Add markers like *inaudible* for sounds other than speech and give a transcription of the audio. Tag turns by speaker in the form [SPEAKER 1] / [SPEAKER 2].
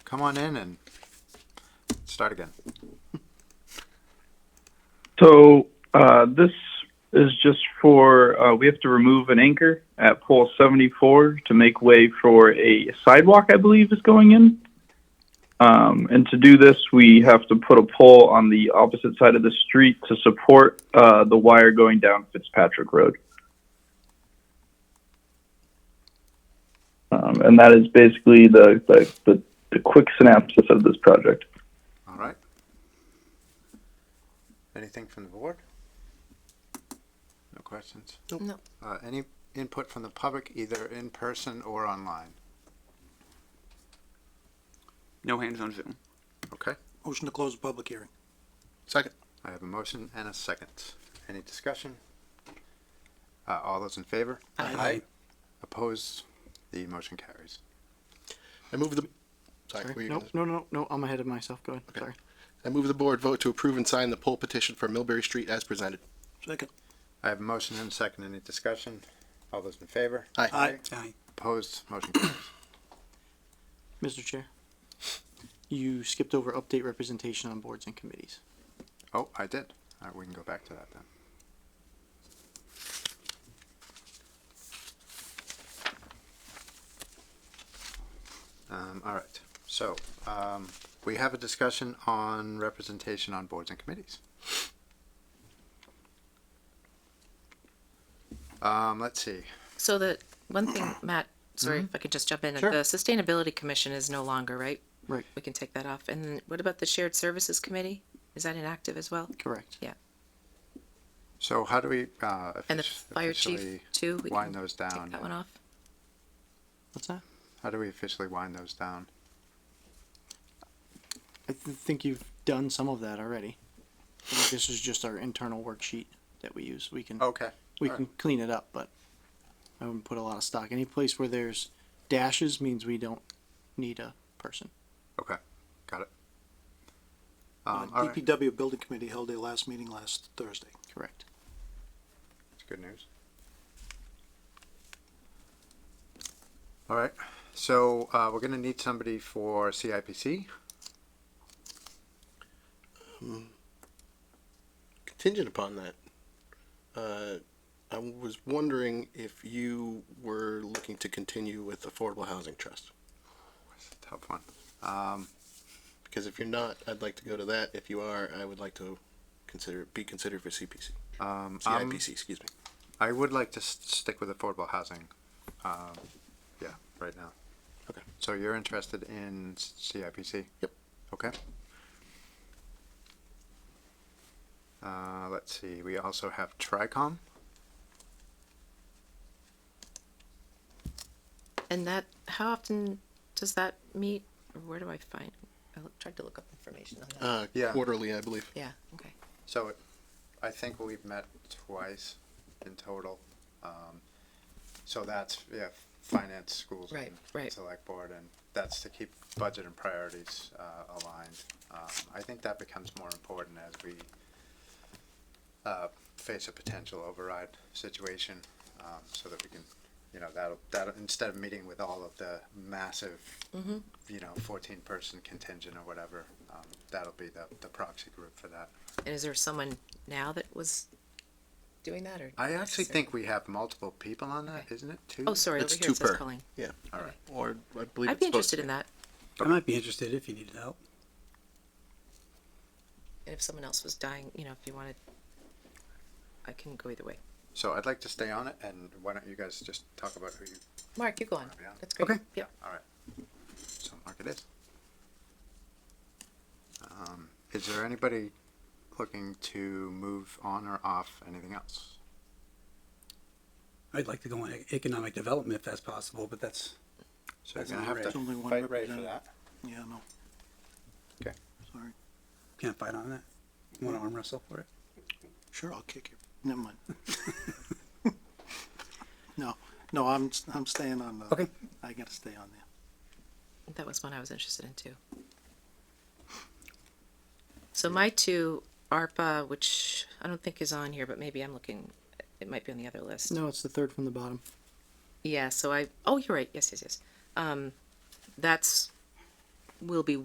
[SPEAKER 1] come on in and start again.
[SPEAKER 2] So uh, this is just for uh, we have to remove an anchor at pole 74 to make way for a sidewalk. I believe is going in. Um, and to do this, we have to put a pole on the opposite side of the street to support uh, the wire going down Fitzpatrick Road. Um, and that is basically the, the, the, the quick synopsis of this project.
[SPEAKER 1] All right. Anything from the board? No questions?
[SPEAKER 3] Nope. No.
[SPEAKER 1] Uh, any input from the public, either in person or online?
[SPEAKER 4] No hands on Zoom.
[SPEAKER 1] Okay.
[SPEAKER 3] Motion to close the public hearing.
[SPEAKER 1] Second. I have a motion and a second. Any discussion? Uh, all those in favor?
[SPEAKER 3] Aye. Aye.
[SPEAKER 1] Opposed? The motion carries.
[SPEAKER 5] I move the. Sorry, were
[SPEAKER 6] Sorry.
[SPEAKER 5] you
[SPEAKER 6] Nope,
[SPEAKER 5] gonna-
[SPEAKER 6] no, no, no, I'm ahead of myself. Go ahead.
[SPEAKER 5] Okay.
[SPEAKER 6] Sorry.
[SPEAKER 5] I move the board vote to approve and sign the poll petition for Millbury Street as presented.
[SPEAKER 3] Second.
[SPEAKER 1] I have a motion and a second. Any discussion? All those in favor?
[SPEAKER 5] Aye.
[SPEAKER 3] Aye.
[SPEAKER 1] Opposed? Motion carries.
[SPEAKER 6] Mr. Chair, you skipped over update representation on boards and committees.
[SPEAKER 1] Oh, I did. All right, we can go back to that then. Um, all right, so, um, we have a discussion on representation on boards and committees. Um, let's see,
[SPEAKER 7] So the one thing, Matt, sorry if I could just jump in.
[SPEAKER 6] Sure.
[SPEAKER 7] The Sustainability Commission is no longer, right?
[SPEAKER 6] Right.
[SPEAKER 7] We can take that off. And then what about the Shared Services Committee? Is that inactive as well?
[SPEAKER 6] Correct.
[SPEAKER 1] so how do we, uh,
[SPEAKER 7] And the
[SPEAKER 1] offici-
[SPEAKER 7] fire chief
[SPEAKER 1] officially
[SPEAKER 7] too? We
[SPEAKER 1] wind
[SPEAKER 7] can
[SPEAKER 1] those
[SPEAKER 7] Take
[SPEAKER 1] down?
[SPEAKER 7] that one off?
[SPEAKER 6] What's that?
[SPEAKER 1] How do we officially wind those down?
[SPEAKER 6] I th- think you've done some of that already. I think this is just our internal worksheet that we use. We can
[SPEAKER 1] Okay.
[SPEAKER 6] we
[SPEAKER 1] Oh, all
[SPEAKER 6] can clean it up, but I wouldn't put a lot of stock. Any place where there's dashes means we don't need a person.
[SPEAKER 3] Uh,
[SPEAKER 1] Um, all right,
[SPEAKER 3] DPW Building Committee held their last meeting last Thursday.
[SPEAKER 6] Correct.
[SPEAKER 1] That's good news. All right, so uh, we're going to need somebody for CIPC.
[SPEAKER 5] Contingent upon that, uh, I was wondering if you were looking to continue with Affordable Housing Trust.
[SPEAKER 1] It's a tough one. Um,
[SPEAKER 5] Because if you're not, I'd like to go to that. If you are, I would like to consider, be considered for CPC,
[SPEAKER 1] um, I'm-
[SPEAKER 5] CIPC, excuse me.
[SPEAKER 1] I would like to s- stick with affordable housing. Um, yeah, right now.
[SPEAKER 5] Okay.
[SPEAKER 1] So you're interested in s- CIPC?
[SPEAKER 5] Yep.
[SPEAKER 1] Okay. Uh, let's see, we also have TRICOM.
[SPEAKER 7] And that, how often does that meet? Or where do I find? I loo- tried to look up information on that.
[SPEAKER 5] Uh,
[SPEAKER 1] Yeah.
[SPEAKER 5] quarterly, I believe.
[SPEAKER 7] Yeah, okay.
[SPEAKER 1] So it- I think we've met twice in total. Um, So that's, yeah, finance, schools.
[SPEAKER 7] Right,
[SPEAKER 1] and
[SPEAKER 7] right.
[SPEAKER 1] Select board, and that's to keep budget and priorities uh, aligned. Um, I think that becomes more important as we uh, face a potential override situation, um, so that we can, you know, that'll, that'll, instead of meeting with all of the massive,
[SPEAKER 7] Mhm.
[SPEAKER 1] you know, fourteen-person contingent or whatever, um, that'll be the, the proxy group for that.
[SPEAKER 7] And is there someone now that was doing that or?
[SPEAKER 1] I actually
[SPEAKER 7] Sorry.
[SPEAKER 1] think we have multiple people on that,
[SPEAKER 7] Okay.
[SPEAKER 1] isn't it? Two?
[SPEAKER 7] Oh, sorry,
[SPEAKER 5] It's
[SPEAKER 7] over here
[SPEAKER 5] two
[SPEAKER 7] it says
[SPEAKER 5] per.
[SPEAKER 7] Colleen.
[SPEAKER 5] Or I believe
[SPEAKER 7] I'd
[SPEAKER 5] it's supposed to
[SPEAKER 7] be interested in that.
[SPEAKER 3] I might be interested if you needed help.
[SPEAKER 7] And if someone else was dying, you know, if you wanted, I can go either way.
[SPEAKER 1] So I'd like to stay on it, and why don't you guys just talk about who you,
[SPEAKER 7] Mark, you go on.
[SPEAKER 1] Yeah.
[SPEAKER 7] That's great.
[SPEAKER 1] Okay.
[SPEAKER 7] Yep.
[SPEAKER 1] so Mark it is. Um, is there anybody looking to move on or off anything else?
[SPEAKER 8] I'd like to go on e- economic development if that's possible, but that's,
[SPEAKER 1] So you're
[SPEAKER 8] That's
[SPEAKER 1] gonna
[SPEAKER 8] not
[SPEAKER 1] have
[SPEAKER 8] Ray.
[SPEAKER 1] to
[SPEAKER 3] There's only one
[SPEAKER 1] fight Ray for that.
[SPEAKER 3] representative. Yeah, no.
[SPEAKER 1] Okay.
[SPEAKER 3] Sorry.
[SPEAKER 8] can't fight on that. Want to arm wrestle for it?
[SPEAKER 3] Sure, I'll kick you. Never mind. *laughs* No, no, I'm, I'm staying on the.
[SPEAKER 8] Okay.
[SPEAKER 3] I gotta stay on there.
[SPEAKER 7] That was one I was interested in too. So my two ARPA, which I don't think is on here, but maybe I'm looking, it might be on the other list.
[SPEAKER 6] No, it's the third from the bottom.
[SPEAKER 7] Yeah, so I, oh, you're right. Yes, yes, yes. Um, that's will be